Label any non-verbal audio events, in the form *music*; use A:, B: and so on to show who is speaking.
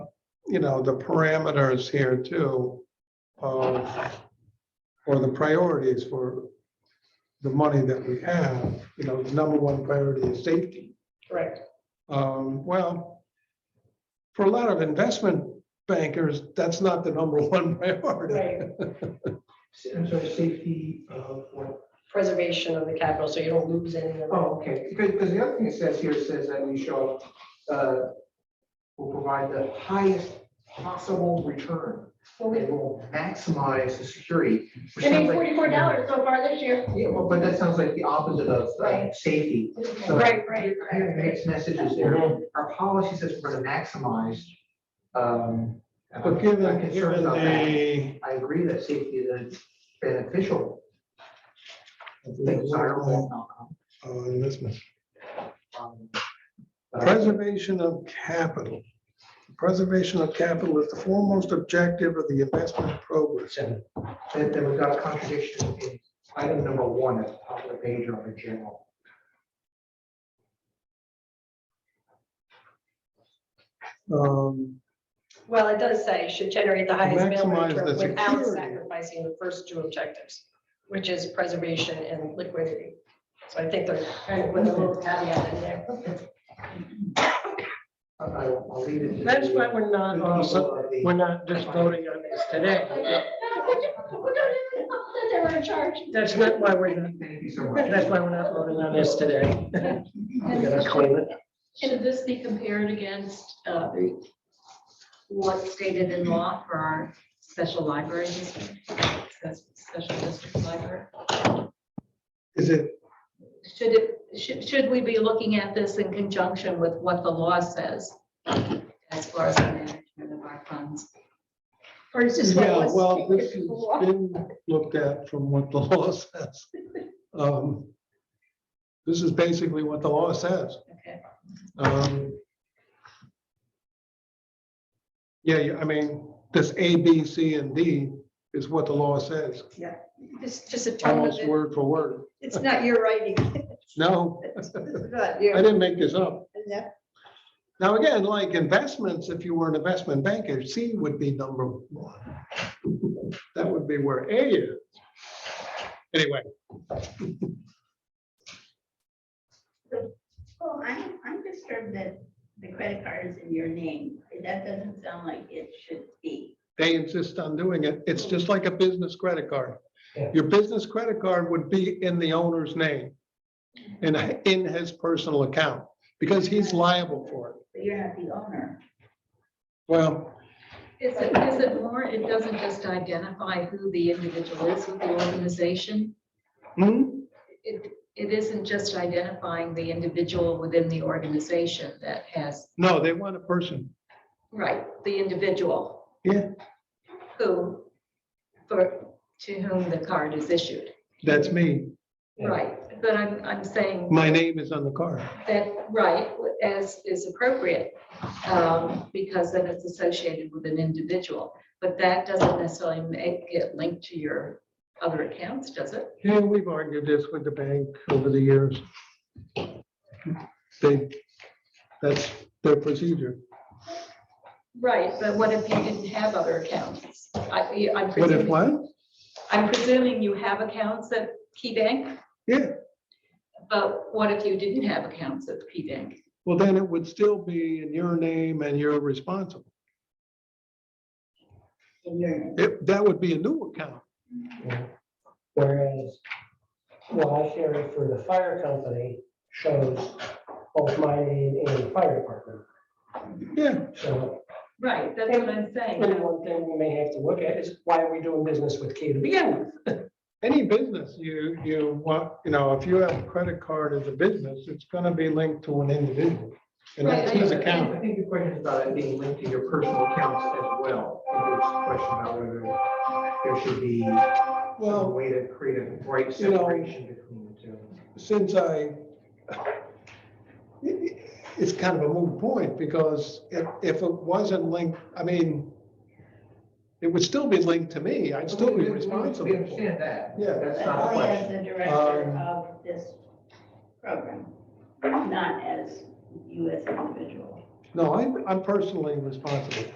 A: you know, the parameters here too of, or the priorities for the money that we have, you know, the number one priority is safety.
B: Correct.
A: Um, well, for a lot of investment bankers, that's not the number *laughs* one priority.
B: Right,
C: I'm sorry, safety of what?
B: preservation of the capital, so you don't lose any of it.
C: Oh, okay, because, because the other thing it says here says that we shall, uh, will provide the highest possible return.
B: Well,
C: It
B: we-
C: will maximize the security. which
B: I mean,
C: sounds like-
B: forty-four dollars so far this year.
C: Yeah, well, but that sounds like the opposite of, uh,
B: Right.
C: safety. So-
B: Right, right,
C: Here,
B: right.
C: Mixed messages there. Our policy says we're gonna maximize, um. and I'm-
A: But
C: I'm
A: given,
C: concerned
A: given
C: about that.
A: the.
C: I agree that safety is a beneficial, desirable
A: Uh,
C: outcome.
A: investment.
C: um, uh,
A: Preservation of capital. Preservation of capital is the foremost objective of the investment program.
C: Seven. That that we've got a contradiction in item number one at the top of the page or in general.
A: Um,
B: Well, it does say should generate the highest mill
A: Maximize
B: return
A: the
B: without
A: security.
B: sacrificing the first two objectives, which is preservation and liquidity. So I think they're kind of with a little caveat in there.
C: I- I'll I'll leave it. to
D: That's
C: the-
D: why we're not, also-
C: the- the-
D: we're not just voting on this today.
B: They're in charge.
D: That's not why we're not,
C: Thank you so much.
D: that's why we're not voting on this today. *laughs* We gotta clean it.
E: Should this be compared against uh, what's stated in law for our special library district? That's Special district library?
A: Is it,
E: Should it, should, should we be looking at this in conjunction with what the law says? As far as the management of our funds?
B: Or is this
A: yeah,
B: what was
A: well, this
B: taken
A: has
B: before?
A: been looked at from what the *laughs* law says. Um, This is basically what the law says.
E: Okay.
A: Um, Yeah, you- I mean, this A, B, C, and D is what the law says,
B: It's just a tone of
A: almost
B: it.
A: word for word.
B: It's not your writing.
A: No,
B: *laughs* It's not
A: I
B: you.
A: didn't make this up.
B: Yeah.
A: Now, again, like investments, if you were an investment banker, C would be number one. That would be where A is. Anyway,
F: Well, I'm, I'm disturbed that the credit card is in your name. That doesn't sound like it should be.
A: they insist on doing it. It's just like a business credit card.
C: Yeah.
A: Your business credit card would be in the owner's name and in his personal account because he's liable for it.
F: But you're not the owner.
A: Well,
E: Is it, is it more, it doesn't just identify who the individual is with the organization?
A: hmm,
E: It, it isn't just identifying the individual within the organization that has
A: no, they want a person.
E: Right, the individual.
A: Yeah.
E: Who, for, to whom the card is issued.
A: That's me.
C: Yeah.
E: Right, but I'm, I'm saying
A: My name is on the card.
E: that, right, as is appropriate, um, because then it's associated with an individual. But that doesn't necessarily make it linked to your other accounts, does it?
A: Yeah, we've argued this with the bank over the years. They, that's their procedure.
E: Right, but what if you didn't have other accounts? I,
A: What
E: I'm
A: if
E: presuming,
A: what?
E: I'm presuming you have accounts at KeyBank,
A: Yeah,
E: but what if you didn't have accounts at KeyBank?
A: well, then it would still be in your name and you're responsible.
F: In your name.
A: It, that would be a new account.
G: Whereas what I carry for the fire company shows both my name and fire department.
A: Yeah,
G: So
E: Right, that's what I'm
G: and
E: saying.
G: one thing we may have to look at is why are we doing business with K to begin with?
A: any business you, you want, you know, if you have a credit card as a business, it's gonna be linked to an individual. And that's
E: Right, I
A: his
E: understand.
A: account.
C: I think the question is about it being linked to your personal accounts as well. I think It's a question about whether there should be a
A: Well,
C: way to create a right
A: You know-
C: separation between the two.
A: since I, it's kind of a moot point, because if, if it wasn't linked, I mean, it would still be linked to me, I'd still
C: We-
A: be
C: we- We
A: responsible. for it.
C: understand that.
A: Yeah.
C: That's
F: But
C: not a
F: only
C: question.
F: as the director
A: Um,
F: of this program, not as you as an individual.
A: No, I'm, I'm personally responsible.